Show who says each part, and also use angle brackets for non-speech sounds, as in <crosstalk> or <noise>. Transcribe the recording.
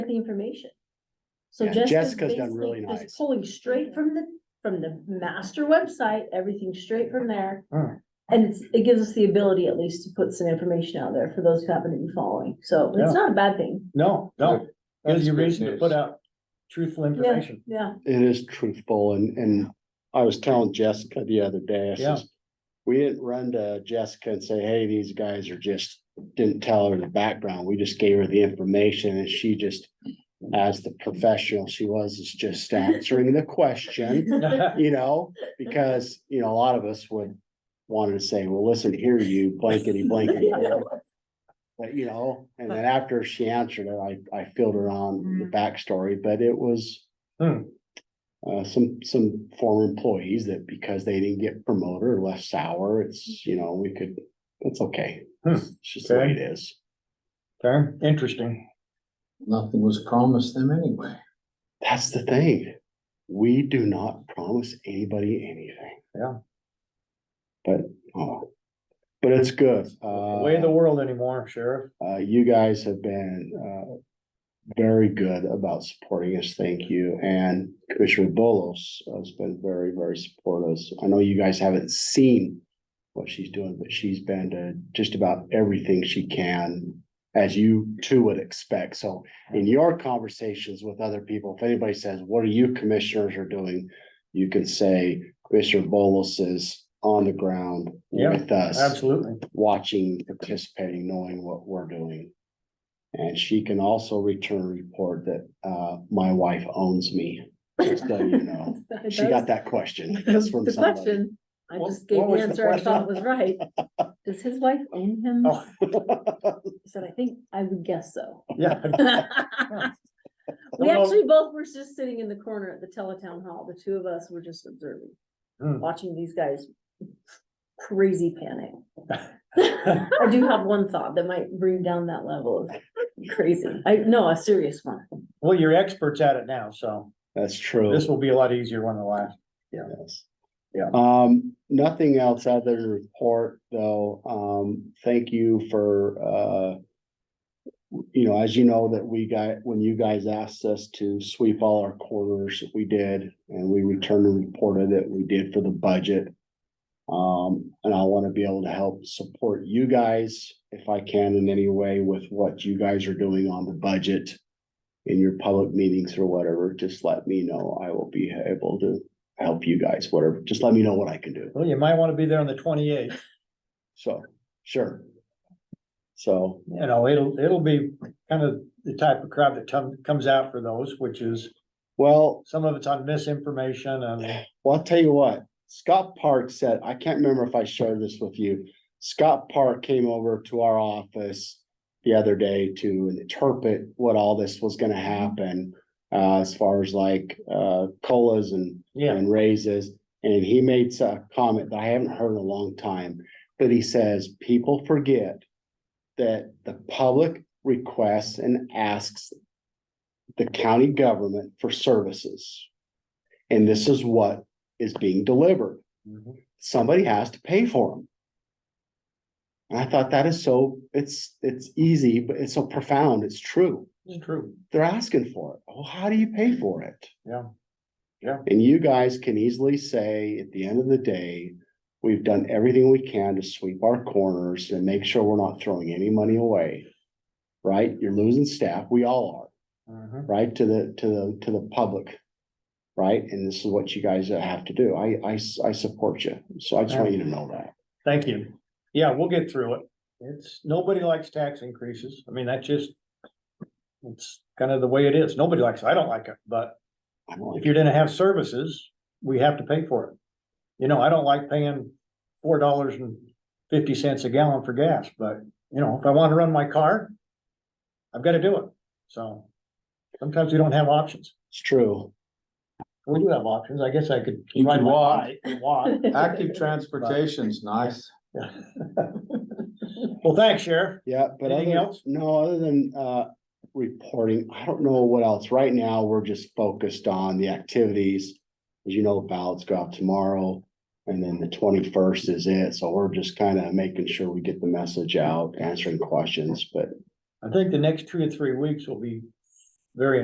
Speaker 1: the information. So
Speaker 2: Yeah,
Speaker 1: just. as
Speaker 2: Jessica's done
Speaker 1: basically
Speaker 2: really
Speaker 1: just
Speaker 2: nice.
Speaker 1: Pulling straight from the, from the master website, everything straight from there.
Speaker 2: Alright.
Speaker 1: And it's, it gives us the ability at least to put some information out there for those who haven't been following, so it's
Speaker 3: Yeah.
Speaker 1: not a bad thing,
Speaker 3: No, no, gives
Speaker 4: That's
Speaker 3: you
Speaker 4: good
Speaker 3: reason to
Speaker 4: news.
Speaker 3: put out truthful information. <laughs>
Speaker 1: yeah.
Speaker 2: It is truthful and, and I was telling Jessica the other day, I
Speaker 3: Yeah.
Speaker 2: says. We didn't run to Jessica and say, hey, these guys are just, didn't tell her the background. We just gave her the information and she just. As the professional she was, is just answering the question, <laughs> <laughs> you know, because, you know, a lot of us would. Wanted to say, well, listen here, you blankety blankety. blank." But you know, and then after she answered it, I, I filled her on the backstory, but it was
Speaker 3: Hmm,
Speaker 2: uh, some, some former employees that because they didn't get promoted or left sour, it's, you know, we could, it's okay.
Speaker 3: Hmm,
Speaker 2: It's just the way
Speaker 3: okay.
Speaker 2: it is.
Speaker 3: okay, interesting.
Speaker 4: Nothing was promised them anyway.
Speaker 2: That's the thing. We do not promise anybody anything.
Speaker 3: Yeah.
Speaker 2: But, oh, but it's good.
Speaker 3: Way of the
Speaker 2: Uh,
Speaker 3: world anymore, Sheriff.
Speaker 2: uh, you guys have been, uh, very good about supporting us. Thank you. And Commissioner Bolos has been very, very supportive. I know you guys haven't seen what she's doing, but she's been to just about everything she can, as you too would expect. So in your conversations with other people, if anybody says, what are you commissioners are doing? You can say Commissioner Bolos is on the ground
Speaker 3: Yeah,
Speaker 2: with us,
Speaker 3: Absolutely.
Speaker 2: watching, participating, knowing what we're doing. And she can also return a report that, uh, my wife owns me, just so you know. She got
Speaker 1: <laughs>
Speaker 2: that question. That's from
Speaker 1: The
Speaker 2: somebody.
Speaker 1: question, I
Speaker 3: What-
Speaker 1: just gave
Speaker 3: what
Speaker 1: the
Speaker 3: was the
Speaker 1: answer I thought was
Speaker 3: question?
Speaker 1: right.
Speaker 2: <laughs>
Speaker 1: Does his wife own him?
Speaker 3: Oh.
Speaker 1: He said, I think, I would guess so.
Speaker 3: Yeah,
Speaker 1: <laughs> We
Speaker 3: Well-
Speaker 1: actually both were just sitting in the corner at the teletown hall, the two of us were just observing,
Speaker 3: Hmm.
Speaker 1: watching these guys crazy
Speaker 3: <laughs>
Speaker 1: panic. I do have one thought that might bring down that level of crazy, I, no, a serious one.
Speaker 3: well, you're experts at it now, so
Speaker 2: That's true.
Speaker 3: this will be a lot easier one than the last.
Speaker 2: Yes.
Speaker 3: Yeah.
Speaker 2: Um, nothing else other than report though. Um, thank you for, uh, you know, as you know that we got, when you guys asked us to sweep all our corners, we did, and we returned and reported that we did for the budget. Um, and I want to be able to help support you guys if I can in any way with what you guys are doing on the budget in your public meetings or whatever, just let me know. I will be able to help you guys, whatever. Just let me know what I can do.
Speaker 3: Well, you might want to be there on the twenty-eighth,
Speaker 2: So, sure. So,
Speaker 3: you know, it'll, it'll be kind of the type of crowd that comes, comes out for those, which is
Speaker 2: well,
Speaker 3: some of it's on misinformation and,
Speaker 2: well, I'll tell you what. Scott Park said, I can't remember if I shared this with you. Scott Park came over to our office the other day to interpret what all this was gonna happen. Uh, as far as like, uh, colas and
Speaker 3: yeah,
Speaker 2: and raises. And he made a comment that I haven't heard in a long time, but he says, people forget that the public requests and asks the county government for services. And this is what is being delivered.
Speaker 3: Mhm.
Speaker 2: Somebody has to pay for them. And I thought that is so, it's, it's easy, but it's so profound. It's true.
Speaker 3: it's true.
Speaker 2: They're asking for it. Well, how do you pay for it?
Speaker 3: Yeah. Yeah.
Speaker 2: And you guys can easily say, at the end of the day, we've done everything we can to sweep our corners and make sure we're not throwing any money away. Right? You're losing staff. We all
Speaker 3: Mhm.
Speaker 2: are, right? To the, to the, to the public. Right? And this is what you guys have to do. I, I, s- I support you. So I just want you to know that.
Speaker 3: Thank you. Yeah, we'll get through it. It's, nobody likes tax increases. I mean, that's just. It's kind of the way it is. Nobody likes, it. I don't like it, but
Speaker 2: I don't
Speaker 3: if
Speaker 2: like-
Speaker 3: you're gonna have services, we have to pay for it. You know, I don't like paying four dollars and fifty cents a gallon for gas, but you know, if I wanna run my car. I've gotta do it. So sometimes we don't have options.
Speaker 2: It's true.
Speaker 3: We do have options. I guess I could.
Speaker 4: You
Speaker 3: ride
Speaker 4: can
Speaker 3: my
Speaker 4: walk.
Speaker 3: bike, Walk.
Speaker 4: Active transportation's nice.
Speaker 3: Well, thanks, Sheriff.
Speaker 2: Yeah, but
Speaker 3: Anything
Speaker 2: other,
Speaker 3: else?
Speaker 2: no, other than, uh, reporting, I don't know what else. Right now, we're just focused on the activities. As you know, ballots go out tomorrow and then the twenty-first is it. So we're just kind of making sure we get the message out, answering questions, but
Speaker 3: I think the next two or three weeks will be very